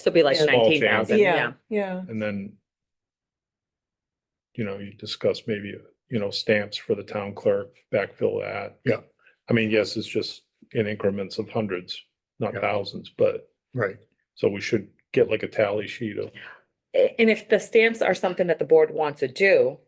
So it'd be like Small nineteen thousand, change. yeah. Yeah, yeah. And then you know, you discuss maybe, you know, stamps for the town clerk, backfill that. Yeah. I mean, yes, it's just in increments of hundreds, not Yeah. thousands, but Right, so we should get like a tally sheet of, A- And if the stamps are something that the board wants to do,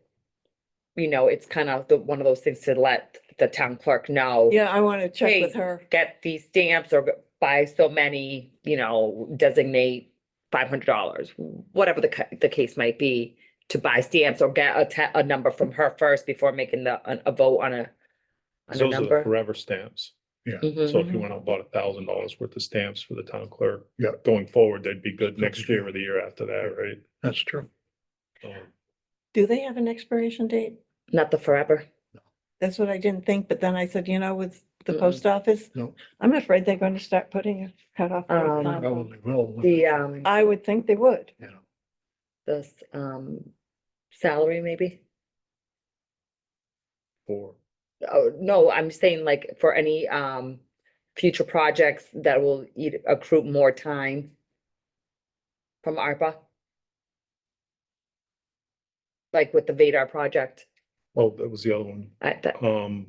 you know, it's kind of the, one of those things to let the town clerk know. Yeah, I want to check with Hey, her. Get these stamps or go- buy so many, you know, designate five hundred dollars, whatever the ca- the case might be. To buy stamps or get a ta- a number from her first before making the, a- a vote on a, on a those are the number. forever stamps. So Mhm. if you went out and bought a thousand dollars worth of stamps for the town clerk. Yeah. Going forward, they'd be good next year or the year after that, right? Um, that's true. So- Do they have an expiration date? Not the forever. That's what I didn't think, but then I said, you know, with the Mm-mm. post office. No. I'm afraid they're going to start putting a cutoff. date Um, on them. Probably will. The um, I would think they would. you know. this um, salary maybe? For, Oh, no, I'm saying like for any um future projects that will eat accrue more time from ARPA. Like with the Vadar project, oh, that was the other one. I that Um,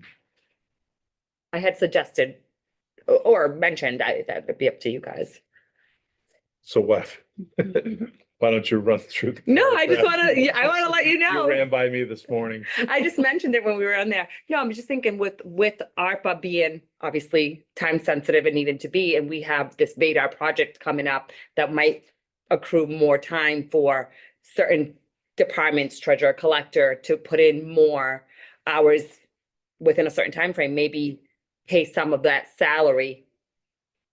I had suggested o- or mentioned, I that would be up to you guys. so what? Why don't you run through? the Mm-hmm. No, I just paragraph? wanna- yeah, I wanna let you know. Ran by me this morning. I just mentioned it when we were on there. No, I'm just thinking with, with ARPA being obviously time sensitive and needing to be, and we have this Vadar project coming up that might accrue more time for certain departments, treasurer, collector, to put in more hours within a certain time frame. maybe pay some of that salary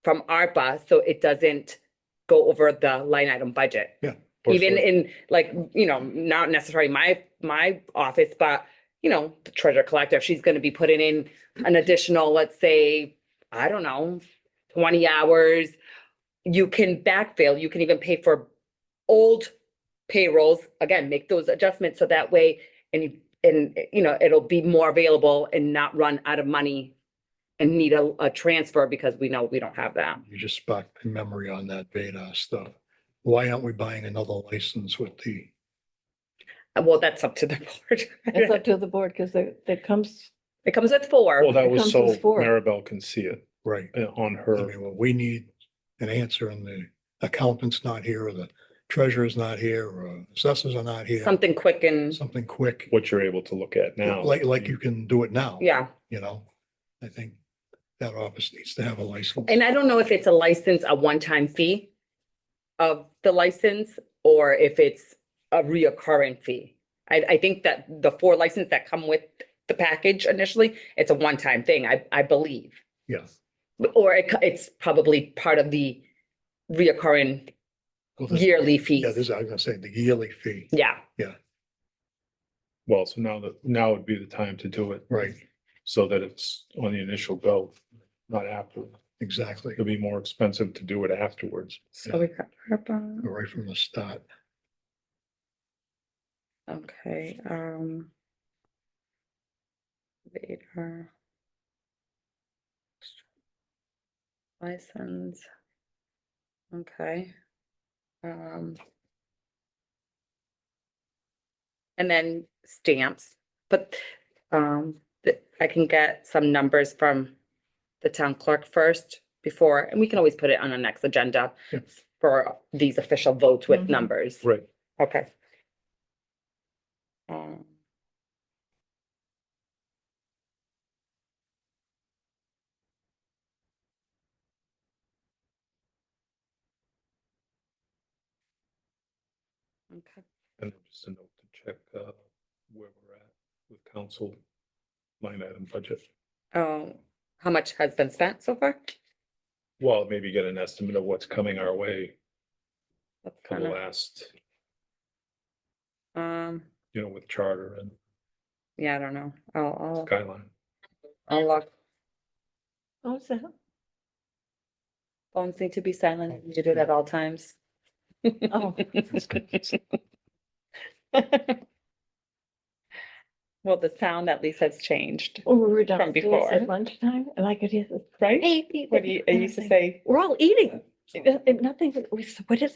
from ARPA, so it doesn't go over the line item budget Or even so- in like, you know, not necessarily my, my office, but you know, the treasure collector, if she's gonna be putting in an additional, let's say, I don't know, twenty hours, you can backfill, you can even pay for old payrolls, again, make those adjustments so that way, and you, and, you know, it'll be more available and not run out of money and need a, a transfer because we know we don't have that. You just sparked my memory on that Veda stuff. Why aren't we buying another license with the, Well, that's up to the board. It's up to the board because that comes, It comes with four. Well, that it was comes so as four. Maribel can see it right? uh, on I her. mean, well, we need an answer and the accountant's not here, or the treasurer's not here, or assessors are not here. Something quick and, Something quick, what you're able to look at now. like, like you can do it now. yeah. You know, I think that office needs to have a license. And I don't know if it's a license, a one-time fee of the license, or if it's a reoccurring fee. I, I think that the four licenses that come with the package initially, it's a one-time thing, I, I believe. Yes. Or it, co- it's probably part of the reoccurring Well, this- yearly Yeah, this, fees. I was gonna say the yearly fee, Yeah, Well, so now that, now would be the time to do it right, so that it's on the initial go, not after. exactly, It'll be more expensive to do it afterwards. so we got ARPA, right from the start. okay, um. Vader. License. Okay. Um. And then stamps, but, um, th- I can get some numbers from the town clerk first before, and we can always put it on the next agenda Yeah. for these official votes with Mhm. numbers. Right. Okay. Um, Okay, And just a note to check uh, where we're at with council line item budget. um, how much has been spent so far? Well, maybe get an estimate of what's coming our way That's for the kinda, last, Um, you know, with charter and yeah, I don't know, I'll, I'll, skyline. I'll lock, oh, is that? phones need to be silent, you do it at all times. Oh, Well, the sound at least has changed, oh, we were From downstairs before. at lunchtime and I could hear this. right? Hey, What do you, I used to nothing. say, We're all eating. It- it- Nothing, we said, what is